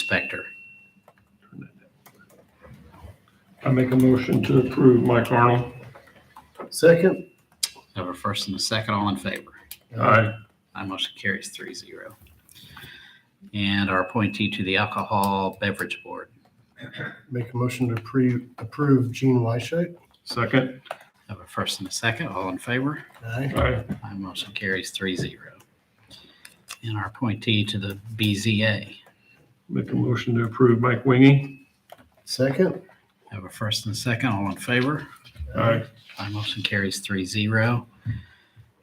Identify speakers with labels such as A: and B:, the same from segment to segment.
A: inspector.
B: I make a motion to approve Mike Arnold.
C: Second? Uh,
A: I have a first and a second, all in favor.
B: Aye.
A: My motion carries three zero. And our appointee to the Alcohol Beverage Board.
C: Make a motion to appre- approve Gene Wyshak.
B: Second?
A: I have a first and a second, all in favor.
C: Aye.
B: Aye.
A: My motion carries three zero. And our appointee to the BZA.
B: Make a motion to approve Mike Wingy.
C: Second?
A: I have a first and a second, all in favor.
B: Aye.
A: My motion carries three zero.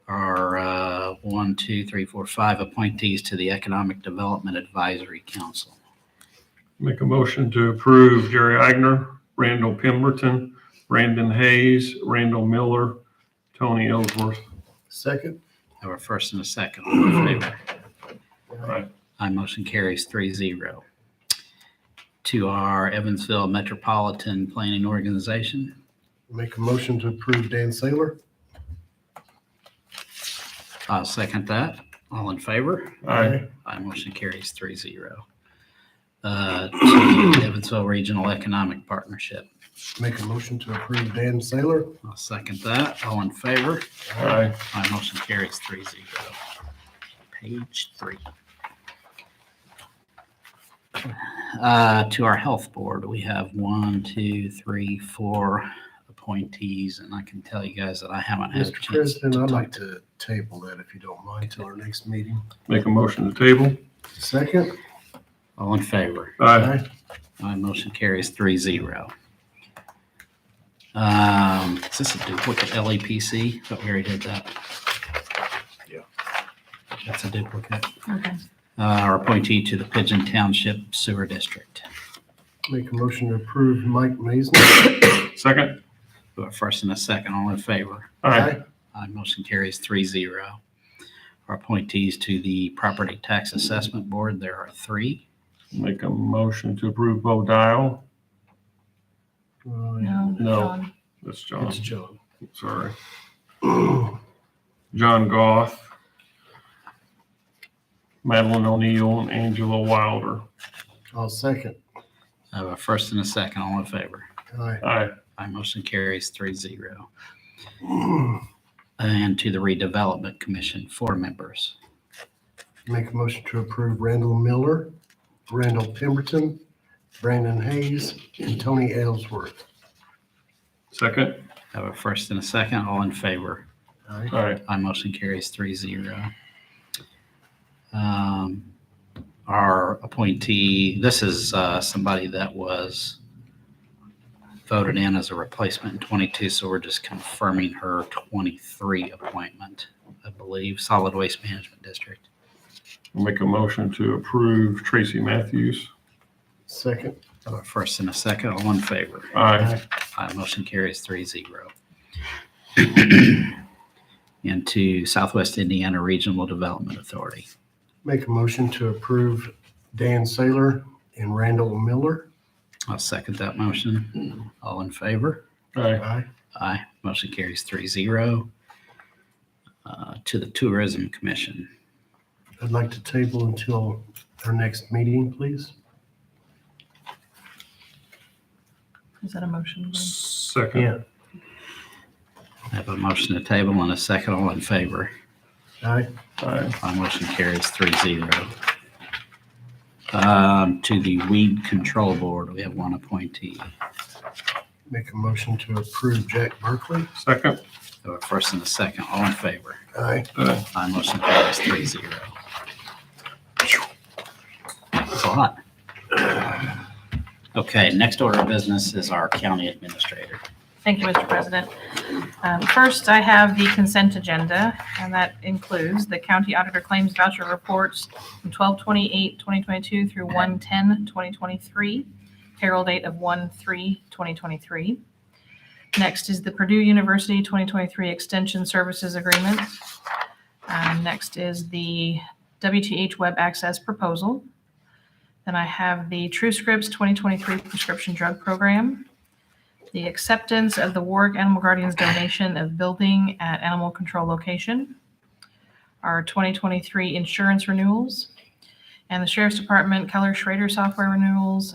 A: Our uh, one, two, three, four, five appointees to the Economic Development Advisory Council.
B: Make a motion to approve Jerry Agner, Randall Pemberton, Brandon Hayes, Randall Miller, Tony Ellsworth.
C: Second?
A: I Have a first and a second. All in favor?
B: Aye.
A: My motion carries three zero. To our Evansville Metropolitan Planning Organization,
C: Make a motion to approve Dan Saylor.
A: I'll second that. All in favor?
B: Aye.
A: My motion carries three zero. Uh, To Evansville Regional Economic Partnership,
C: Make a motion to approve Dan Saylor.
A: I'll second that. All in favor?
B: Aye.
A: My motion carries three zero. Page three. Uh, To our health board, we have one, two, three, four appointees, and I can tell you guys that I haven't had a
C: Mr.
A: chance to
C: President, I'd
A: talk
C: like
A: to.
C: to table that if you don't mind till our next meeting.
B: Make a motion to table.
C: Second?
A: All in favor?
B: Aye.
A: My motion carries three zero. Um, Is this a duplicate LEPC? Thought we already did that.
C: Yeah.
A: That's a duplicate.
D: Okay.
A: Uh, Our appointee to the Pigeon Township Sewer District.
C: Make a motion to approve Mike Mason.
B: Second?
A: We have a first and a second, all in favor.
B: Aye.
A: Aye, motion carries three zero. Our appointees to the Property Tax Assessment Board, there are three.
B: Make a motion to approve Bo Dial.
C: Oh, yeah.
D: No.
B: No.
D: John.
B: That's John.
C: It's John.
B: Sorry. John Goff. Madeline O'Neill and Angela Wilder.
C: I'll second.
A: I have a Uh, first and a second, all in favor.
C: Aye.
B: Aye.
A: Aye, motion carries three zero. And to the Redevelopment Commission, four members.
C: Make a motion to approve Randall Miller, Randall Pemberton, Brandon Hayes, and Tony Ellsworth.
B: Second?
A: I Have a first and a second, all in favor.
C: Aye.
B: Aye.
A: My motion carries three zero. Um, Our appointee, this is uh, somebody that was voted in as a replacement in twenty-two, so we're just confirming her twenty-three appointment, I believe, Solid Waste Management District.
B: Make a motion to approve Tracy Matthews.
C: Second.
A: I have a First and a second, all in favor.
B: Aye.
A: My motion carries three zero. And to Southwest Indiana Regional Development Authority.
C: Make a motion to approve Dan Saylor and Randall Miller.
A: I'll second that motion. All in favor?
B: Aye.
C: Aye.
A: Aye. Motion carries three zero. Uh, To the Tourism Commission,
C: I'd like to table until our next meeting, please.
D: Is that a motion?
B: Second?
A: I have a motion to table and a second. All in favor?
C: Aye.
B: Aye.
A: My motion carries three zero. Um, To the Weed Control Board, we have one appointee.
C: Make a motion to approve Jack Berkeley.
B: Second?
A: So a first and a second. All in favor?
C: Aye.
B: Aye.
A: My motion carries three zero. That's a lot. Okay, next order of business is our county administrator.
D: Thank you, Mr. President. Um, First, I have the consent agenda, and that includes the county auditor claims voucher reports from 12/28/2022 through 1/10/2023, payroll date of 1/3/2023. Next is the Purdue University 2023 Extension Services Agreement. Um, Next is the WTH Web Access Proposal. Then I have the TrueScripts 2023 Prescription Drug Program the acceptance of the Warwick Animal Guardians donation of building at animal control location, our 2023 insurance renewals, And the Sheriff's Department, Keller Schrader software renewals,